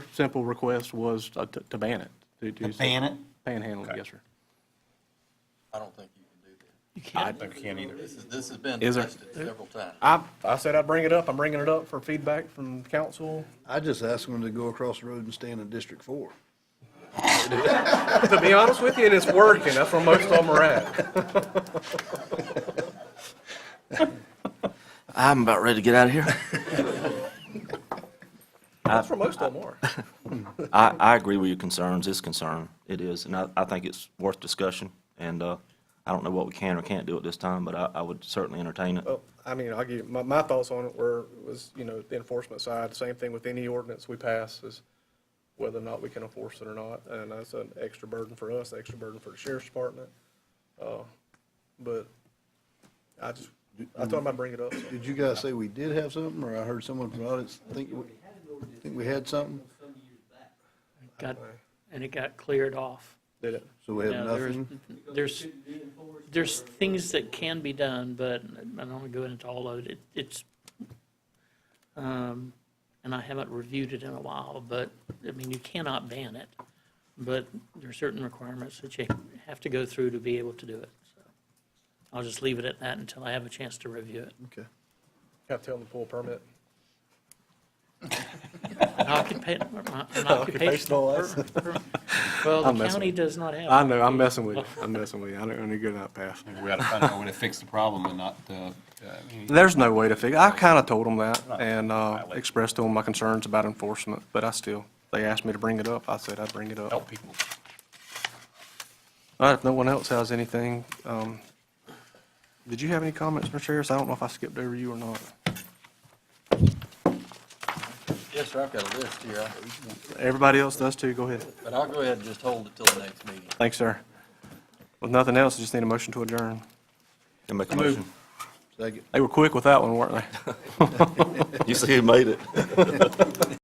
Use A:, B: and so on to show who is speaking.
A: simple request was uh, to to ban it. to-
B: To ban it?
A: Panhandling, yes, sir.
C: I don't think you can do that.
D: I can't either.
C: This is, this has been
A: Is there-
C: tested several times.
A: I, I said I'd bring it up. I'm bringing it up for feedback from council.
E: I just asked them to go across the road and stand in District Four.
A: To be honest with you, and it's working. That's where most of them are at.
F: I'm about ready to get out of here.
A: That's where most of them are.
F: I, I agree with your concerns. It's a concern. It is. And I, I think it's worth discussion. And, uh, I don't know what we can or can't do at this time, but I, I would certainly entertain it.
G: Well, I mean, I'll give, you- my, my thoughts on it were, was, you know, the enforcement side, same thing with any ordinance we pass is whether or not we can enforce it or not, and that's an extra burden for us, extra burden for the sheriff's department. Uh, But I just, I thought I might bring it up. so.
E: Did you guys say we did have something, or I heard someone from the audience think, we- think we had something?
D: Got, and it got cleared off.
G: Did it?
E: So we have
D: Now, there's-
E: nothing?
D: There's, there's things that can be done, but I don't want to go into all of it. It- It's, um, and I haven't reviewed it in a while, but, I mean, you cannot ban it. But there are certain requirements that you have to go through to be able to do it. So I'll just leave it at that until I have a chance to review it.
E: Okay.
G: Have to tell them to pull a permit.
D: An occupa- an occupational per- per- Well,
A: I'm
D: the
A: messing
D: county does not have.
A: I know, I'm messing with you. I'm messing with you. I don't want to go that path.
H: We gotta find out a way to fix the problem and not, uh, uh, I mean,
A: There's no way to figure, I kind of told them that and uh, expressed to them my concerns about enforcement, but I still, they asked me to bring it up. I said I'd bring it up.
H: help people.
A: All right, if no one else has anything, um, did you have any comments, Mr. Harris? I don't know if I skipped over you or not.
C: Yes, sir, I've got a list here, I-
A: Everybody else does too, go ahead.
C: but I'll go ahead and just hold it till the next meeting.
A: Thanks, sir. With nothing else, I just need a motion to adjourn.
F: Can I make a motion?
E: Second.
A: They were quick with that one, weren't they?
F: You see who made it?